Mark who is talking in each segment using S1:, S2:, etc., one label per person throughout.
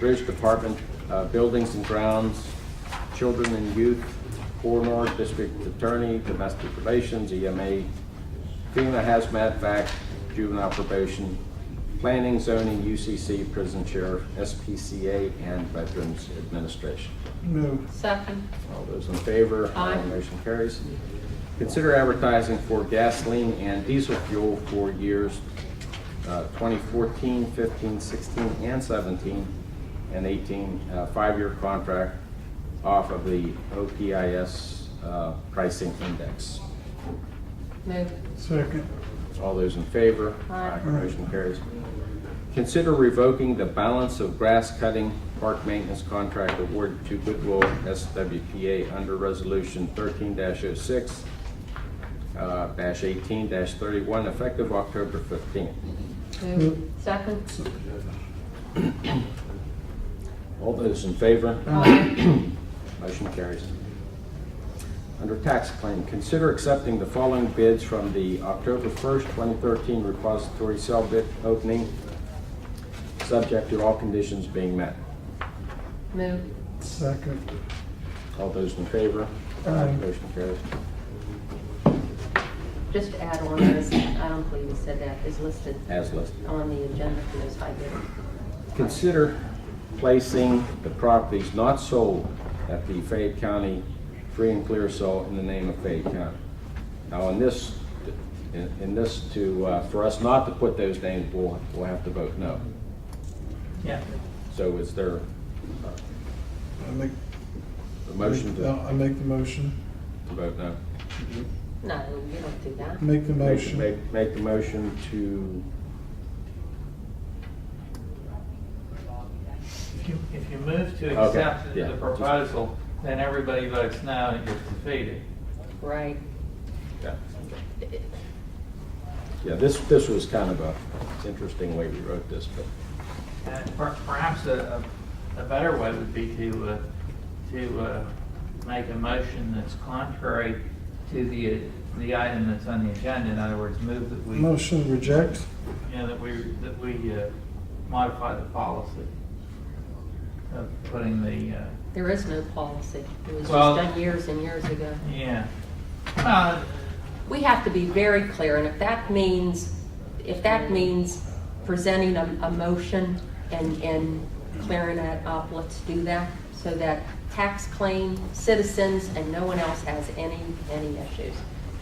S1: Bridge Department, uh, Buildings and Grounds, Children and Youth, Cornor, District Attorney, Domestic Relations, EMA, FEMA Hazmat Vac, Juvenile Probation, Planning, Zoning, UCC, Prison Sheriff, SPCA, and Veterans Administration.
S2: Move.
S3: Second.
S1: All those in favor?
S3: Aye.
S1: Motion carries. Consider advertising for gasoline and diesel fuel for years uh, 2014, 15, 16, and 17, and 18, uh, five-year contract off of the OPIS uh, pricing index.
S3: Move.
S2: Second.
S1: All those in favor?
S3: Aye.
S1: Motion carries. Consider revoking the balance of grass cutting park maintenance contract awarded to Goodwill SWPA under Resolution thirteen 6 uh, dash eighteen dash thirty-one, effective October fifteenth.
S3: Move. Second.
S1: All those in favor?
S3: Aye.
S1: Motion carries. Under tax claim, consider accepting the following bids from the October 1st, 2013 repository cell bid opening, subject to all conditions being met.
S3: Move.
S2: Second.
S1: All those in favor?
S2: Aye.
S1: Motion carries.
S3: Just to add on this, I don't believe you said that, is listed
S1: As listed.
S3: on the agenda for those high bidders.
S1: Consider placing the properties not sold at the Fayette County free and clear sale in the name of Fayette County. Now, in this, in in this to, uh, for us not to put those names, we'll, we'll have to vote no.
S4: Yeah.
S1: So is there
S2: I make.
S1: a motion to
S2: No, I make the motion.
S1: to vote no?
S3: No, you don't do that.
S2: Make the motion.
S1: Make, make the motion to,
S4: If you, if you move to
S1: Okay,
S4: accept
S1: yeah.
S4: the proposal, then everybody votes no and it gets defeated.
S3: Right.
S1: yeah. Yeah, this, this was kind of a interesting way we wrote this, but.
S4: And per- perhaps a, a a better way would be to, uh, to uh, make a motion that's contrary to the, uh, the item that's on the agenda. In other words, move that we, you
S2: Motion reject.
S4: know, that we, that we uh, modify the policy of putting the, uh,
S3: There is no policy. It was just
S4: Well-
S3: done years and years ago.
S4: yeah. Uh, Well,
S3: We have to be very clear, and if that means, if that means presenting a, a motion and, and clearing that up, let's do that, so that tax claim, citizens, and no one else has any, any issues.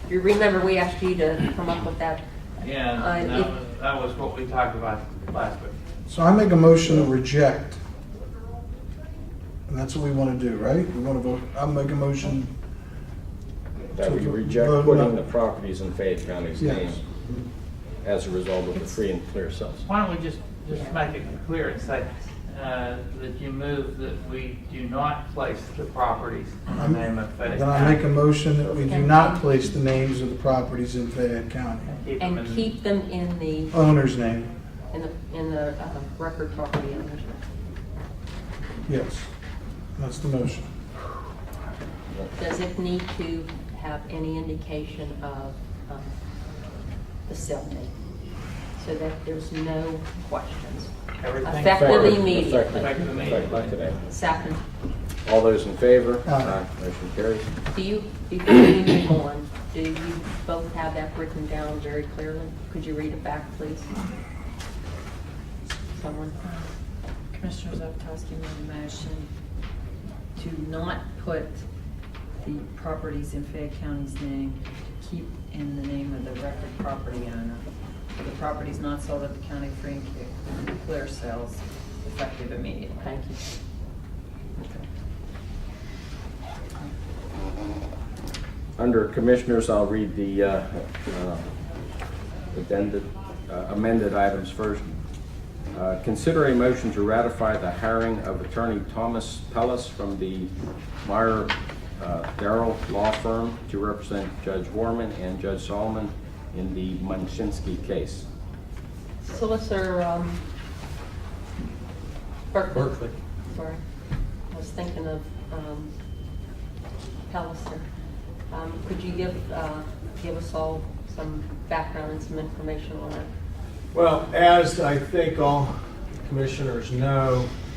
S3: You remember, we asked you to come up with that.
S4: yeah,
S3: I-
S4: that was- that was what we talked about last week.
S2: So I make a motion to reject. And that's what we want to do, right? We want to vote, I make a motion,
S1: That we
S2: To
S1: reject
S2: vote
S1: putting
S2: no.
S1: the properties in Fayette County's
S2: Yes.
S1: name as a result of the free and clear sales.
S4: Why don't we just, just make it clear and say, uh, that you move that we do not place the properties in the name of Fayette.
S2: then I make a motion that we do not place the names of the properties in Fayette County.
S4: them
S3: And
S4: in-
S3: keep them in the,
S2: Owner's name,
S3: in the, in the uh, record property owners.
S2: yes. That's the motion.
S3: Does it need to have any indication of, um, the sale date? So that there's no questions.
S4: Everything-
S3: Effective
S1: Effective-
S3: immediately.
S1: effective-
S4: Effective immediately.
S1: effective today.
S3: Second,
S1: All those in favor?
S2: Aye.
S1: Motion carries.
S3: do you, before you move on, do you both have that written down very clearly? Could you read it back, please? Someone?
S5: Commissioner Zapatowski made a motion to not put the properties in Fayette County's name, to keep in the name of the record property owner. The properties not sold at the county free and clear sales effective immediately.
S3: Thank you.
S1: Under Commissioners, I'll read the uh, uh, addended- uh, amended items first. Uh, Consider a motion to ratify the hiring of Attorney Thomas Pellis from the Meyer uh, Darrell Law Firm to represent Judge Warman and Judge Solomon in the Munchinski case.
S3: Solicitor, um, Berkeley. Sorry, I was thinking of, um, Palliser. Um, could you give, uh, give us all some background and some information on it?
S6: Well, as I think all commissioners know,